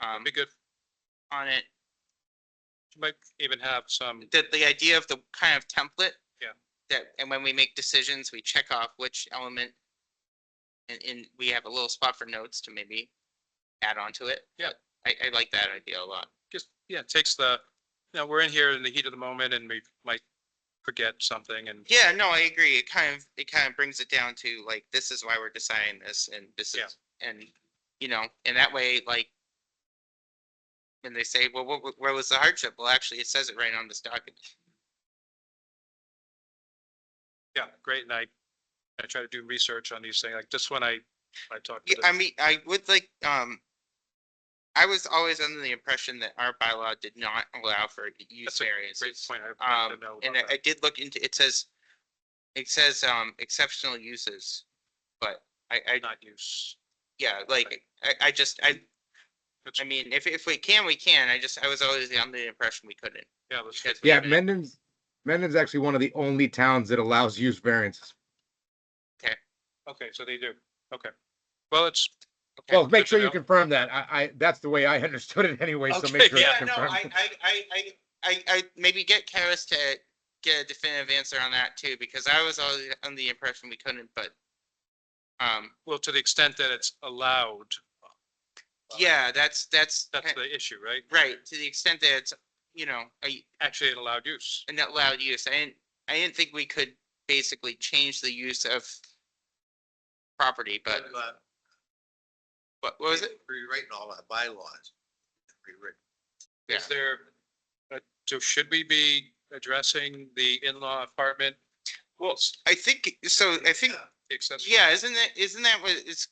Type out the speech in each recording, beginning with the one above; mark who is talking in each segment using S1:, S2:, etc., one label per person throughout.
S1: um, be good on it. You Might even have some,
S2: the, the idea of the kind of template.
S1: Yeah.
S2: That, and when we make decisions, we check off which element. And, and we have a little spot for notes to maybe add on to it.
S1: Yeah.
S2: I, I like that idea a lot.
S1: just, yeah, it takes the, you know, we're in here in the heat of the moment and we might forget something and,
S2: Yeah, no, I agree. It kind of, it kind of brings it down to like, this is why we're deciding this and this
S1: Yeah.
S2: is, and, you know, and that way, like. When they say, well, what, what was the hardship? Well, actually, it says it right on this document.
S1: yeah, great. And I, I try to do research on these things, like just when I, I talked to
S2: Yeah, I
S1: the,
S2: mean, I would like, um, I was always under the impression that our bylaw did not allow for use
S1: That's a great
S2: variances.
S1: point. I
S2: Um,
S1: wanted to know
S2: and
S1: about
S2: I I
S1: that.
S2: did look into, it says, it says, um, exceptional uses, but I, I,
S1: not use.
S2: yeah, like, I, I just, I,
S1: That's-
S2: I mean, if, if we can, we can. I just, I was always under the impression we couldn't.
S1: Yeah, let's-
S2: Because we
S3: Yeah,
S2: haven't-
S3: Mendon's, Mendon's actually one of the only towns that allows use variances.
S1: okay, so they do. Okay. Well, it's,
S2: okay.
S3: Well,
S1: good
S3: make
S1: to
S3: sure you
S1: know.
S3: confirm that. I, I, that's the way I understood it anyway, so
S1: Okay,
S3: make sure
S1: yeah,
S3: it's
S2: Yeah, no, I,
S3: confirmed.
S2: I, I, I, I, I maybe get Karis to get a definitive answer on that too, because I was always under the impression we couldn't, but. Um,
S1: well, to the extent that it's allowed,
S2: yeah, that's, that's,
S1: that's
S2: ki-
S1: the issue, right?
S2: Eh. right, to the extent that it's, you know, a,
S1: Actually, an allowed use.
S2: an allowed use, I didn't, I didn't think we could basically change the use of. Property, but, but what was it?
S4: Rewriting all our bylaws. Rewritten.
S1: Is there, uh, so should we be addressing the in-law apartment? Well,
S2: I think, so I think
S1: the accessory,
S2: Yeah, isn't that, isn't that what it's,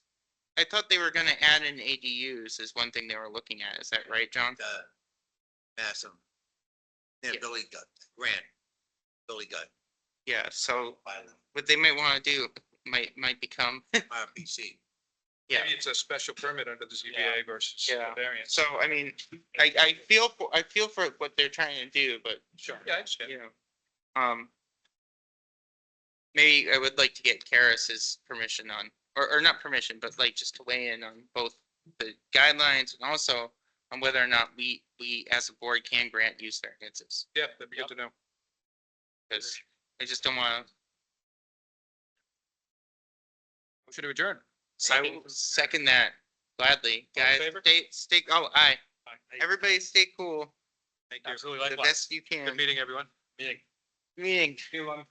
S2: I thought they were gonna add in ADUs is one thing they were looking at, is that right, John?
S4: uh, Massam. Yeah,
S2: Yeah.
S4: Billy got, Grant, Billy got
S2: Yeah, so
S4: violent,
S2: what they might wanna do might, might become,
S4: RPC.
S2: yeah.
S1: maybe it's a special permit under the ZBA versus
S2: Yeah.
S1: a variance.
S2: So, I mean, I, I feel, for I feel for what they're trying to do, but,
S1: Sure. Yeah, I understand.
S2: you know, um. Maybe I would like to get Karis's permission on, or, or not permission, but like just to weigh in on both the guidelines and also on whether or not we, we as a board can grant use variances.
S1: Yeah, that'd be good to know.
S2: Cause I just don't wanna,
S1: Motion to adjourn.
S2: I will second that gladly,
S1: All in
S2: guys,
S1: favor?
S2: stay, stay, oh, aye,
S1: Thank
S2: everybody stay cool,
S1: you.
S2: the best you can,
S1: Good meeting, everyone.
S2: meeting,
S1: See you, Lana.